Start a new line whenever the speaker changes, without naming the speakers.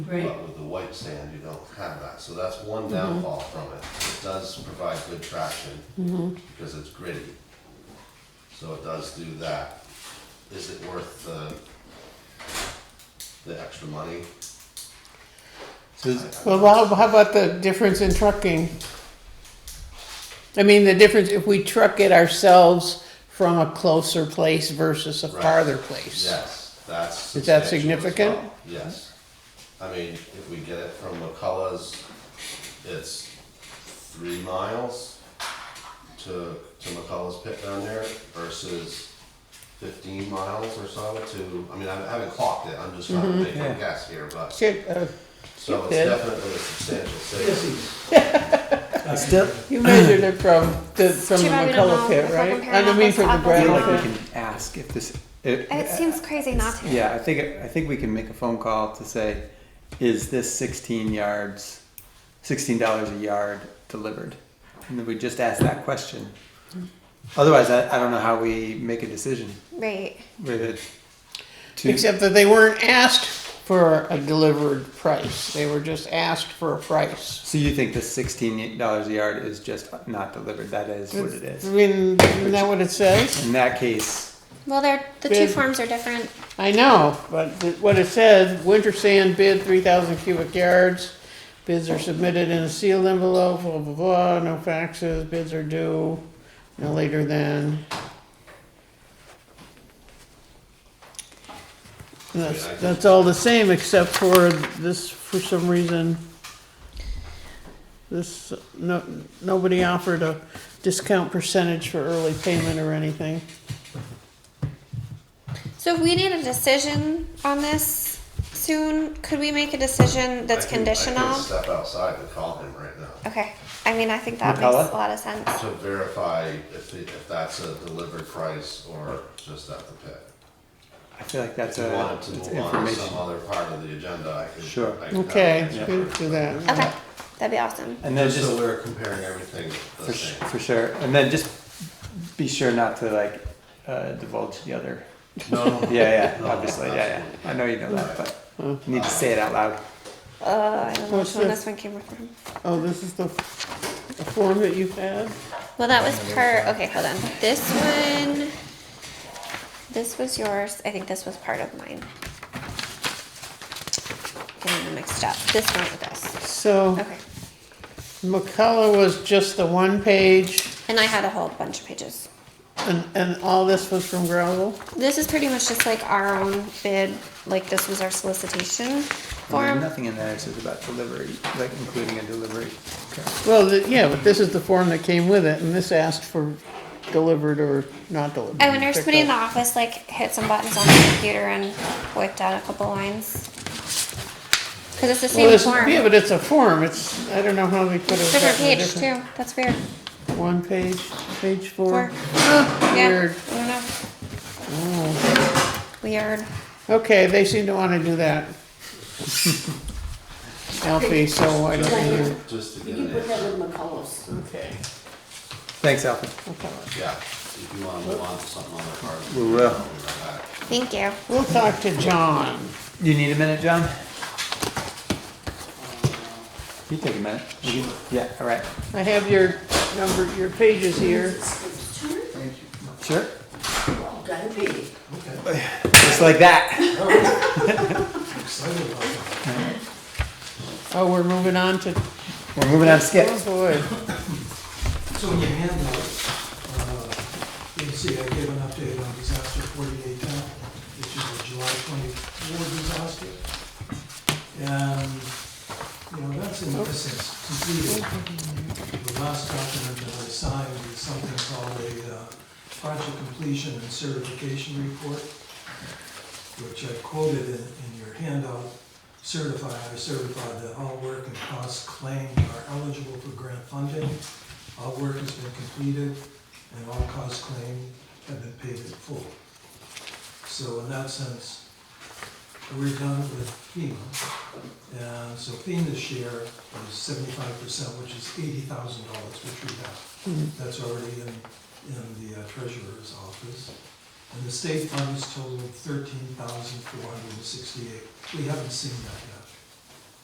Right.
But with the white sand, you don't have that, so that's one downfall from it. It does provide good traction because it's gritty. So it does do that. Is it worth the, the extra money?
Says-
I- I-
Well, how, how about the difference in trucking? I mean, the difference if we truck it ourselves from a closer place versus a
Right.
farther place.
Yes, that's.
Is that
substantial as
significant?
well. Yes. I mean, if we get it from McCullough's, it's three miles to, to McCullough's pit down there versus fifteen miles or so to, I mean, I haven't clocked it, I'm just trying
Mm-hmm.
to make a
Yeah.
guess here, but,
Shit, uh,
so it's
did.
definitely a substantial savings.
I still,
You measured it from the, from the
too bad we don't
McCullough
know
pit,
if we're
right? I
comparing
don't mean
apples to
from the
apples
I
ground.
or
feel like
level.
not.
we can ask if this.
It seems crazy not to.
Yeah, I think, I think we can make a phone call to say, is this sixteen yards, sixteen dollars a yard delivered? And then we just ask that question. Otherwise, I, I don't know how we make a decision
Right.
with it. to-
Except that they weren't asked for a delivered price. They were just asked for a price.
So you think the sixteen dollars a yard is just not delivered? That is what it
I
is.
mean, isn't that what it says?
In that case,
Well, they're the two
Bid.
forms are different.
I know, but th- what it says, winter sand bid three thousand cubic yards. Bids are submitted in a sealed envelope, blah, blah, blah, no faxes, bids are due no later than. That's, that's all the same except for this, for some reason. This, no, nobody offered a discount percentage for early payment or anything.
So if we need a decision on this soon, could we make a decision that's
I can- I
conditional?
can step outside and call him right now
Okay. I mean, I think that
Nutella?
makes a lot of sense.
to verify if, it- if that's a delivered price or just at the pit.
I feel like that's
If you
a
wanted to
Uh,
move on
it's
to some
information.
other part of the agenda, I could.
Sure.
I could have
Okay,
it.
we can do that.
Okay. That'd be awesome.
And then
Just
just
so we're comparing everything
For,
the
sh-
same.
for sure. And then just be sure not to like uh, divulge the other.
No, no, no.
Yeah, yeah,
No,
obviously. Yeah,
absolutely.
yeah. I know you know that, but
Huh.
you need to say it out loud.
Uh, I don't know
What's
which one
this?
this one came from.
Oh, this is the, the form that you had?
Well, that was part. Okay, hold on. This one. This was yours. I think this was part of mine. Getting them mixed up. This one with this.
So
Okay.
McCullough was just the one page
And I had a whole bunch of pages.
and, and all this was from gravel?
This is pretty much just like our own bid. Like this was our solicitation
There's
form.
nothing in there that says about delivery, like including a delivery. Okay.
Well, the- yeah, but this is the form that came with it and this asked for delivered or not delivered.
I wonder if
picked
somebody in the
up.
office like hit some buttons on the computer and wiped out a couple lines. Cause it's the
Well,
same
it's-
form.
Yeah, but it's a form, it's, I don't know how they could have.
Different
gotten a
page
different-
too. That's weird.
One page, page
Four.
four.
Yeah.
Weird.
I don't know.
Oh.
Weird.
Okay, they seem to wanna do that. Alfie, so why don't you?
Just- Just to get
You can
an
put that
answer,
with McCullough's.
Okay.
Thanks, Alfred.
McCullough.
yeah, if you wanna move on to something on the part.
We will.
Thank you.
We'll talk to John.
You need a minute, John? You take a minute. You can- Yeah, all right.
I have your number, your pages here.
It's true.
Sure.
Well, gotta be.
Just like that.
Oh, we're moving on to,
We're moving on to
oh
skips.
boy.
So in your handout, uh, you can see I gave an update on disaster forty-eight ten, which is a July twenty-four disaster. And, you know, that's in essence completed. The last document that I signed is something called a uh, project completion and certification report, which I quoted in, in your handout, certify, I certify that all work and costs claimed are eligible for grant funding. All work has been completed and all costs claimed have been paid in full. So in that sense, we're done with FEMA. And so FEMA's share is seventy-five percent, which is eighty thousand dollars, which we have. That's already in, in the uh, treasurer's office. And the state funds total thirteen thousand four hundred and sixty-eight. We haven't seen that yet.